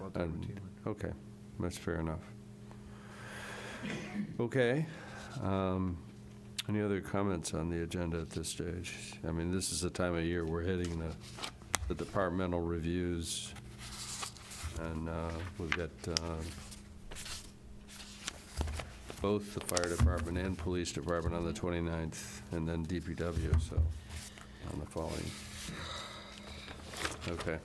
out there And- routinely. Um, Okay, that's fair enough. Okay. um, Any other comments on the agenda at this stage? I mean, this is the time of year we're hitting the, the departmental reviews, and uh, we've got um, both the fire department and police department on the 29th, and then DPW, so, on the following. Okay,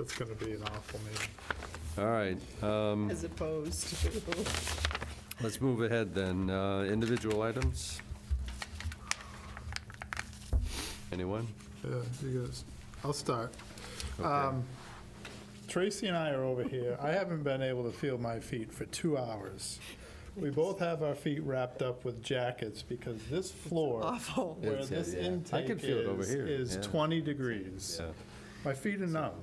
It's going to be an awful meeting. all right. um, as opposed to. Let's move ahead then. Uh, Individual items? Anyone? Yeah, you guys, I'll start. Okay. Um, Tracy and I are over here. I haven't been able to feel my feet for two hours. We both have our feet wrapped up with jackets because this floor Awful. where It's, uh, this yeah. I can intake feel it over is, here, is yeah. 20 degrees. My feet are numb.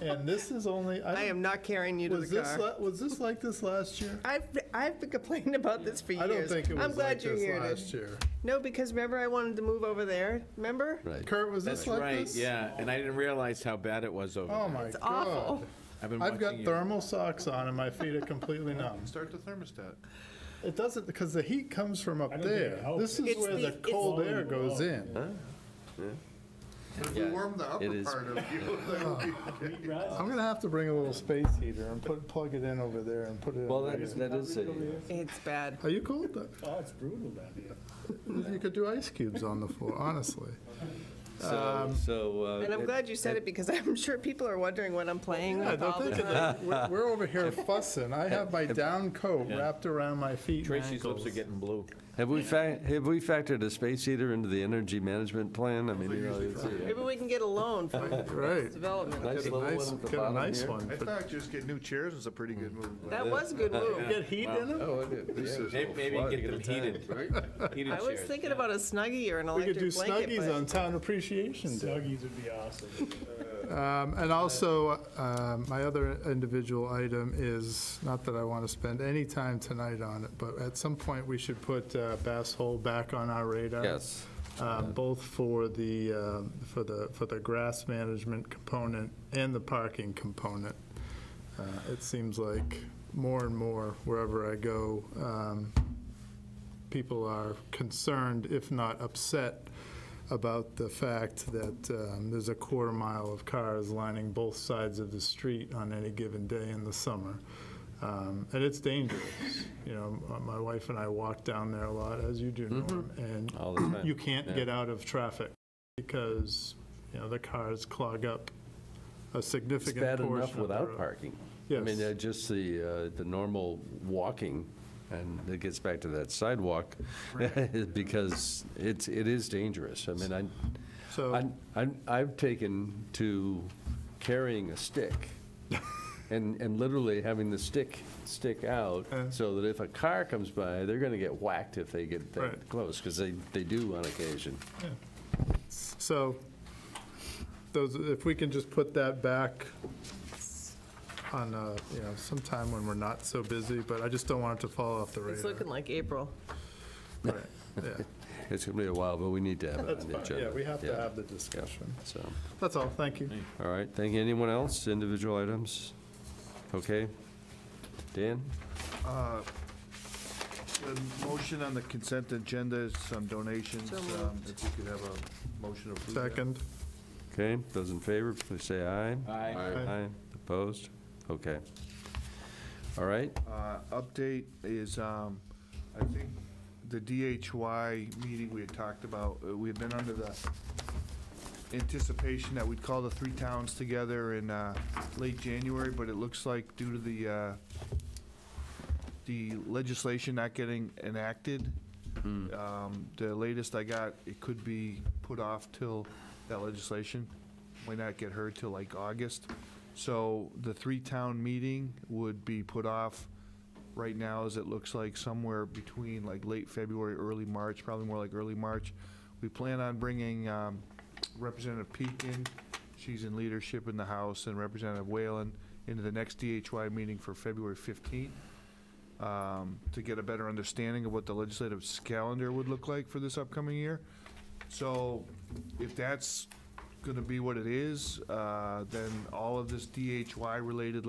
And this is only, I I am don't, not carrying you to was the this, car. la- was this like this last year? I've, I've been complaining about this for years. I don't think it I'm was glad like you this heard it. last year. No, because remember I wanted to move over there, remember? Right. Kurt, was this That's like right, this? yeah, and I didn't realize how bad it was over Oh, there. my God. It's awful. I've been I've got watching you. thermal socks on and my feet are completely numb. Start the thermostat. It doesn't, because the heat comes from up don't think it there. helps. This is It's where the- the it's- cold air goes in. If we Yeah, warm the it upper is. part of you, then we I'm gonna have to bring a little space heater and put, plug it in over there and put it Well, in there. that is, It's bad. Are you cold? Oh, it's brutal down here. You could do ice cubes on the floor, honestly. Um, so, so. uh, And I'm it- glad you said it because I'm sure people are wondering what I'm playing Yeah, with all don't the think time. of it. We're we're over here fussing. I have my down coat wrapped around my feet and Tracy's lips ankles. are getting blue. Have we fac, have we factored a space heater into the energy management plan? I mean, you know, it's a Maybe we can get a loan for Right. development. nice Get a little one nice- at the get a bottom nice here. one. I thought just get new chairs is a pretty good move. That was a good move. Get heat in them? Oh, it- This is- yeah. Maybe maybe flood get them at a time. heated, heated I was chairs. thinking about a Snuggie or an We could do electric blanket, snuggies but on Town Appreciation Day. Snuggies would be awesome. Um, And also, um, my other individual item is, not that I want to spend any time tonight on it, but at some point, we should put uh, Bass Hole back on our radar. Yes, Um, Both for the, um, for the, for the grass management component and the parking component. Uh, It seems like more and more, wherever I go, um, people are concerned, if not upset, about the fact that um, there's a quarter mile of cars lining both sides of the street on any given day in the summer. Um, And it's dangerous. You know, m- my wife and I walk down there a lot, as you do, Norm, and Mm-hmm. all the time. you can't Yeah. get out of traffic because, you know, the cars clog up a It's significant bad portion of enough the without road. parking. I mean, Yes. uh, just the, uh, the normal walking, and it gets back to that sidewalk, because it's, it is dangerous. I mean, I, So- I'm- I'm- I've taken to carrying a stick and, and literally having the stick stick out Uh. so that if a car comes by, they're going to get whacked if they get that Right. close, because they, they do on occasion. So, those, if we can just put that back on, uh, you know, sometime when we're not so busy, but I just don't want it to fall off the radar. It's looking like April. Right, yeah. It's going to be a while, but we need to have it That's on the fine, agenda. yeah, we have to Yeah. have the discussion. So, That's all, thank you. all right, thank you. Anyone else, individual items? Okay. Dan? The motion on the consent agenda is some donations. So um, If you could have a motion to approve. that. Second, Okay, those in favor, please say aye. Aye. Aye. Aye, opposed? Okay. All right, Uh, Update is, um, I think, the DHY meeting we had talked about, uh, we had been under the anticipation that we'd call the three towns together in uh, late January, but it looks like due to the, uh, the legislation not getting enacted, um, the latest I got, it could be put off till that legislation, might not get heard till like August. So the three-town meeting would be put off right now, as it looks like somewhere between like late February, early March, probably more like early March. We plan on bringing um, Representative Peak in, she's in leadership in the House, and Representative Whalen into the next DHY meeting for February 15th um, to get a better understanding of what the legislative calendar would look like for this upcoming year. So if that's going to be what it is, uh, then all of this DHY-related